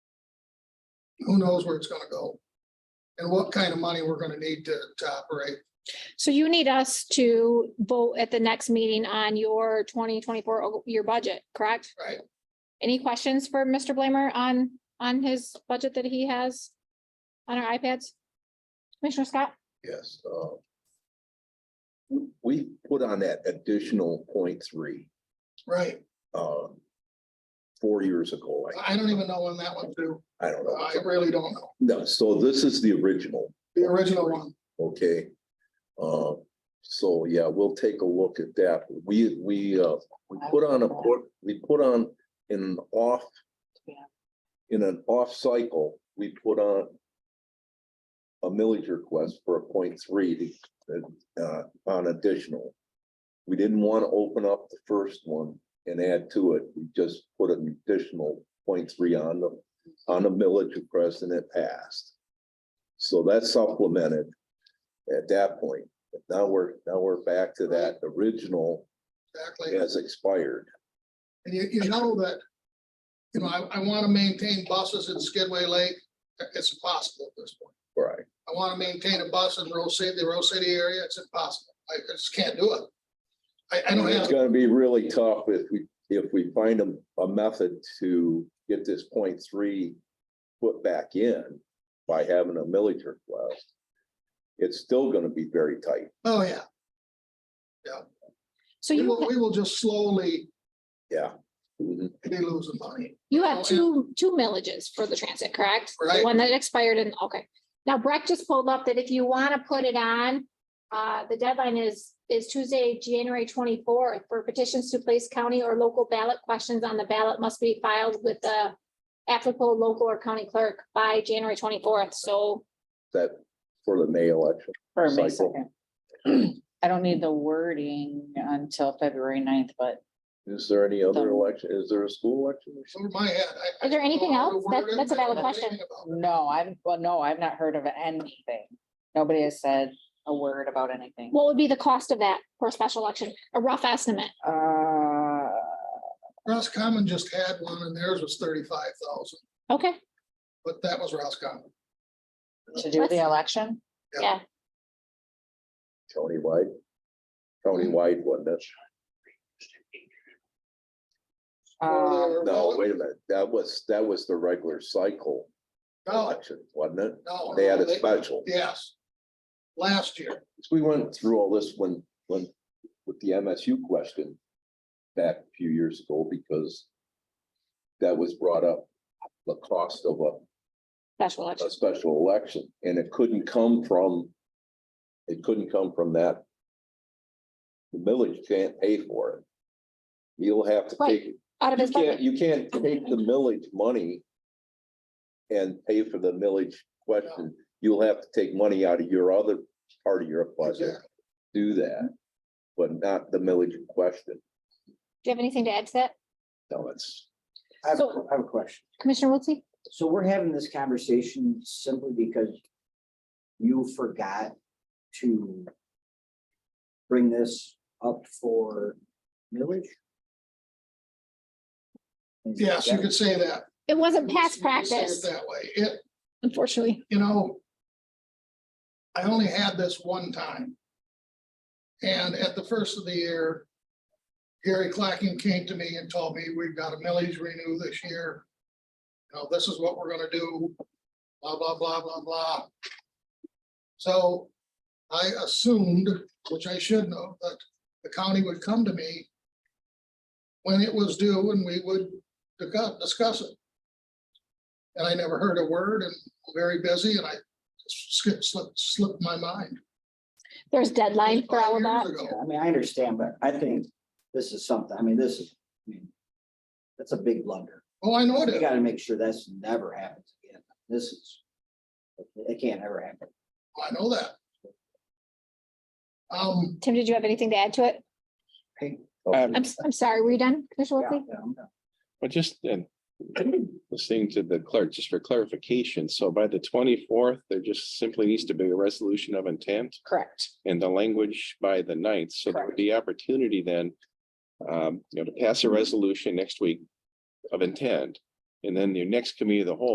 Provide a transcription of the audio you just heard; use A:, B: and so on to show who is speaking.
A: who knows where it's gonna go? And what kind of money we're gonna need to, to operate.
B: So you need us to vote at the next meeting on your twenty twenty-four, your budget, correct?
A: Right.
B: Any questions for Mr. Blamer on, on his budget that he has on our iPads? Commissioner Scott?
C: Yes. uh, We put on that additional point three,
A: Right,
C: um, four years ago. I-
A: I don't even know when that went through.
C: I don't
A: I
C: know.
A: really don't know.
C: No, so this is the original,
A: The original one,
C: okay? Uh, so yeah, we'll take a look at that. We, we, uh, we put on a, port- we put on an off.
D: Yeah.
C: In an off cycle, we put on. A millage request for a point three, to, uh, on additional. We didn't want to open up the first one and add to it. We just put an additional point three on the, on the millage request and it passed. So that's supplemented at that point. But Now we're, now we're back to that original
A: exactly.
C: has expired.
A: And you, you know that, you know, I, I want to maintain buses in Skidway Lake. It's impossible at this point.
C: Right.
A: I want to maintain a bus in Rose City, the Rose City area. It's impossible. I I just can't do it. I, I don't
C: It's
A: have,
C: gonna be really tough if we, if we find a, a method to get this point three put back in by having a millage request. It's still gonna be very tight.
A: oh, yeah.
B: So
A: We
B: you,
A: will, we will just slowly
C: Yeah. Mm-hmm.
A: be losing money.
B: you have two, two millages for the transit, correct? The
A: Oh, Right.
B: One that expired and, okay. Now Breck just pulled up that if you want to put it on, uh, the deadline is, is Tuesday, January twenty-fourth for petitions to place county or local ballot questions on the ballot must be filed with the applicable local or county clerk by January twenty-fourth. So
C: That for the May election.
D: For May
C: Cycle.
D: second. I don't need the wording until February 9th, but
C: Is there any other
D: Um,
C: election? Is there a school election? or something?
A: Over my head. I- I
B: Is there
A: don't know
B: anything
A: how to
B: else?
A: word
B: That-
A: it.
B: that's a
A: I don't
B: valid
A: know
B: question.
A: anything about it.
D: no, I've, well, no, I've not heard of anything. Nobody has said a word about anything.
B: what would be the cost of that for a special election? A rough estimate?
D: Uh,
A: Roscommon just had one and theirs was thirty-five thousand,
B: Okay,
A: but that was Roscommon.
D: to do the election?
B: yeah.
C: Countywide? Countywide, wasn't it?
D: Um,
C: No, wait a minute. That was, that was the regular cycle
A: No,
C: election, wasn't it?
A: no.
C: They had a
A: they-
C: special.
A: Yes. Last year,
C: We went through all this when, when, with the MSU question back a few years ago because that was brought up, the cost of a,
B: Special election.
C: a special election, and it couldn't come from, it couldn't come from that. The village can't pay for it. You'll have to
B: Right.
C: take,
B: Out of
C: You
B: his
C: can't,
B: budget.
C: you can't take the millage money. And pay for the millage question. You'll have to take money out of your other part of your budget.
A: Exactly.
C: Do that, but not the millage question.
B: Do you have anything to add to that?
C: No, it's,
E: I have, a
B: So-
E: que- I have a question.
B: Commissioner Wiltie?
E: So we're having this conversation simply because you forgot to bring this up for millage? Is
A: yes, you
E: that-
A: could say that.
B: It wasn't
A: You could
B: past
A: say it
B: practice,
A: That way, it,
B: unfortunately.
A: you know. I only had this one time. And at the first of the year. Gary Clacking came to me and told me, we've got a millage renew this year. You know, this is what we're gonna do, blah, blah, blah, blah, blah. So I assumed, which I should know, that the county would come to me. When it was due and we would discuss, discuss it. And I never heard a word and very busy and I skipped, slipped, slipped my mind.
B: There's deadline for all of
A: Five
B: that.
A: years ago.
E: I mean, I understand, but I think this is something, I mean, this is, I mean, that's a big blunder.
A: Oh, I know it
E: We
A: is.
E: gotta make sure that's never happens again. This is, it can't ever happen.
A: I know that. Um,
B: Tim, did you have anything to add to it?
F: Um,
B: I'm, s- I'm sorry, were you done, Commissioner
E: Yeah,
B: Wiltie?
E: Oh, yeah, I'm-
F: but just then, listening to the clerk, just for clarification, so by the twenty-fourth, there just simply needs to be a resolution of intent
D: Correct.
F: and the language by the ninth, so there would be opportunity then um, you know, to pass a resolution next week of intent, and then the next committee of the whole